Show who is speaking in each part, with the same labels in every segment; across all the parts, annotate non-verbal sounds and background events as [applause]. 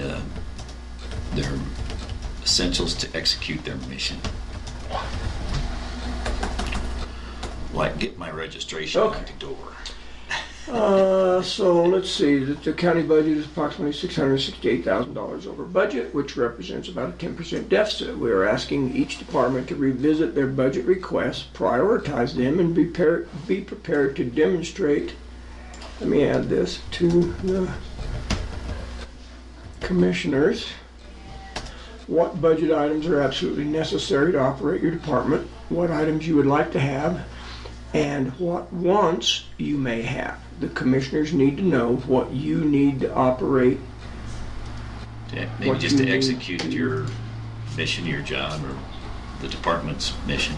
Speaker 1: uh, their essentials to execute their mission. Like get my registration
Speaker 2: Okay.
Speaker 1: at the door.
Speaker 2: Uh, so let's see, the, the county budget is approximately six hundred sixty-eight thousand dollars over budget, which represents about a ten percent deficit. We are asking each department to revisit their budget requests, prioritize them, and be prepared, be prepared to demonstrate, let me add this, to the commissioners, what budget items are absolutely necessary to operate your department, what items you would like to have, and what wants you may have. The commissioners need to know what you need to operate.
Speaker 1: Yeah, maybe
Speaker 2: What
Speaker 1: just
Speaker 2: you
Speaker 1: to
Speaker 2: need.
Speaker 1: execute your mission, your job, or the department's mission.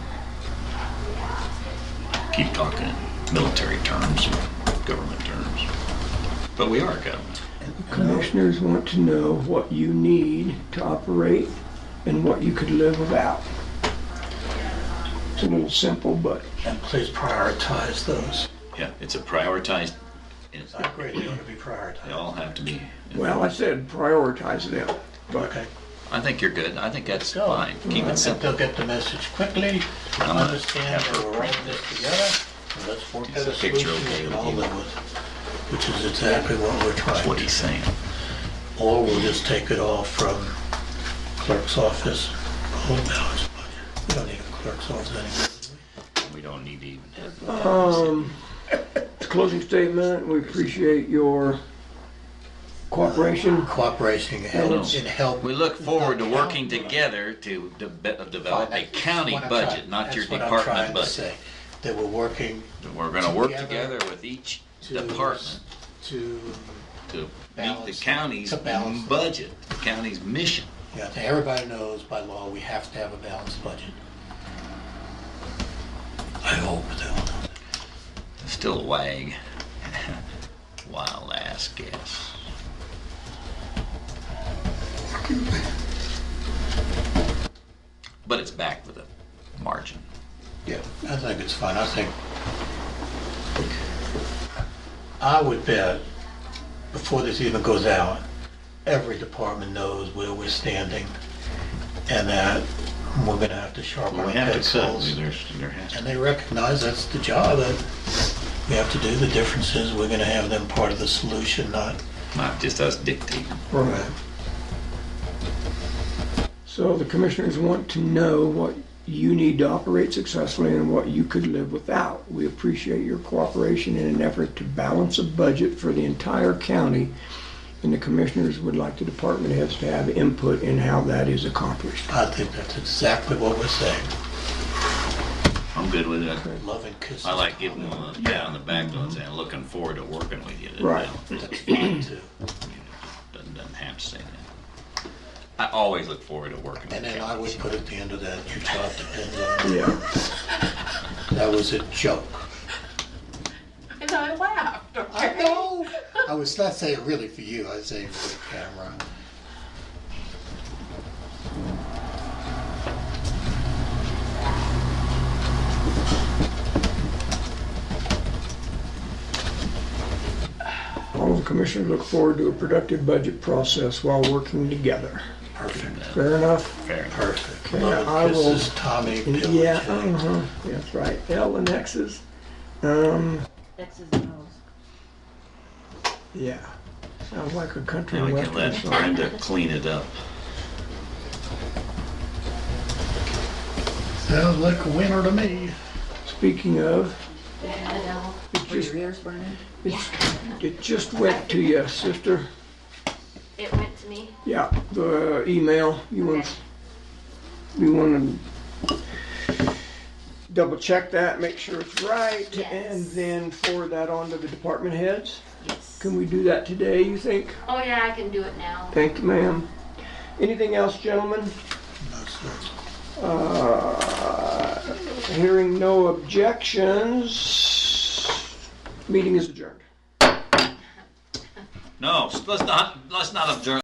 Speaker 1: Keep talking in military terms or government terms. But we are government.
Speaker 2: Commissioners want to know what you need to operate and what you could live without. It's a little simple, but
Speaker 3: And please prioritize those.
Speaker 1: Yeah, it's a prioritized, and
Speaker 3: I agree, they ought to be
Speaker 1: they
Speaker 3: prioritized.
Speaker 1: all have to be.
Speaker 2: well, I said prioritize them. But
Speaker 3: Okay.
Speaker 1: I think you're good. I think that's
Speaker 3: Go.
Speaker 1: fine. Keep it
Speaker 3: And
Speaker 1: simple.
Speaker 3: they'll get the message quickly,
Speaker 1: I'm gonna
Speaker 3: understand
Speaker 1: have
Speaker 3: that
Speaker 1: her
Speaker 3: we're all in
Speaker 1: print
Speaker 3: this
Speaker 1: this.
Speaker 3: together, and let's work
Speaker 1: Is
Speaker 3: out
Speaker 1: the
Speaker 3: a
Speaker 1: picture
Speaker 3: solution
Speaker 1: okay
Speaker 3: we can
Speaker 1: with
Speaker 3: all
Speaker 1: you?
Speaker 3: live with, which is exactly what we're
Speaker 1: That's
Speaker 3: trying
Speaker 1: what
Speaker 3: to
Speaker 1: he's saying.
Speaker 3: Or we'll just take it all from clerk's office, Oh, whole balance budget. We don't need a clerk's office anymore.
Speaker 1: We don't need to even have.
Speaker 2: Um, closing statement, we appreciate your cooperation.
Speaker 3: Cooperation helps in help.
Speaker 1: We look forward to
Speaker 3: No, no,
Speaker 1: working
Speaker 3: no, no.
Speaker 1: together to de- uh, develop a
Speaker 3: That's
Speaker 1: county
Speaker 3: what I'm
Speaker 1: budget,
Speaker 3: trying-
Speaker 1: not your
Speaker 3: that's what I'm
Speaker 1: department
Speaker 3: trying to
Speaker 1: budget.
Speaker 3: say, That we're working
Speaker 1: We're gonna work
Speaker 3: Together
Speaker 1: together with each
Speaker 3: to.
Speaker 1: department
Speaker 3: To,
Speaker 1: to meet the
Speaker 3: balance-
Speaker 1: county's
Speaker 3: to balance.
Speaker 1: budget, the county's mission.
Speaker 3: yeah, that everybody knows by law, we have to have a balanced budget. I hope they'll know. that.
Speaker 1: Still a wag. [laughs] Wild ass guess. But it's back with a margin.
Speaker 3: Yeah, I think it's fine, I think. I would bet, before this even goes out, every department knows where we're standing, and that we're gonna have to sharpen our pencils. And they recognize that's the job, that we have to do the differences, we're gonna have them part of the solution, not.
Speaker 1: Not just us dictating.
Speaker 2: So the commissioners want to know what you need to operate successfully and what you could live without. We appreciate your cooperation in an effort to balance a budget for the entire county. And the commissioners would like the department heads to have input in how that is accomplished.
Speaker 3: I think that's exactly what we're saying,
Speaker 1: I'm good with it.
Speaker 3: love and kisses.
Speaker 1: I like giving them a pat on the back though and saying, looking forward to working with you.
Speaker 2: Right.
Speaker 3: That's fine too.
Speaker 1: Doesn't, doesn't have to say that. I always look forward to working with
Speaker 3: And then
Speaker 1: you.
Speaker 3: I would put at the end of that, your job depends on,
Speaker 2: Yeah.
Speaker 3: that was a joke.
Speaker 4: And I laughed.
Speaker 3: I
Speaker 4: okay?
Speaker 3: know, I was not saying really for you, I was saying for the camera.
Speaker 2: All the commissioners look forward to a productive budget process while working together.
Speaker 3: Perfect,
Speaker 2: Fair enough?
Speaker 1: Fair enough.
Speaker 3: perfect.
Speaker 2: Okay,
Speaker 3: Love
Speaker 2: I
Speaker 3: and
Speaker 2: will-
Speaker 3: kisses, Tommy, Bill,
Speaker 2: Yeah,
Speaker 3: Jane.
Speaker 2: uh-huh, that's right. L and X's. Um,
Speaker 5: X's and O's.
Speaker 2: yeah. Sounds like a country
Speaker 1: Now we can
Speaker 2: western
Speaker 1: let
Speaker 2: song.
Speaker 1: Brenda clean it up.
Speaker 3: Sounds like a winner to me.
Speaker 2: Speaking of, it
Speaker 5: Were
Speaker 2: just,
Speaker 5: your ears burning?
Speaker 2: it just went to you, sister.
Speaker 6: It went to me.
Speaker 2: Yeah, the email, you want, you want to double check that, make sure it's right, and
Speaker 6: Yes.
Speaker 2: then forward that on to the department heads?
Speaker 6: Yes.
Speaker 2: Can we do that today, you think?
Speaker 6: Oh yeah, I can do it now.
Speaker 2: Thank you, ma'am. Anything else, gentlemen?
Speaker 3: That's it.
Speaker 2: Uh, Hearing no objections, meeting is adjourned.
Speaker 1: No, let's not, let's not observe.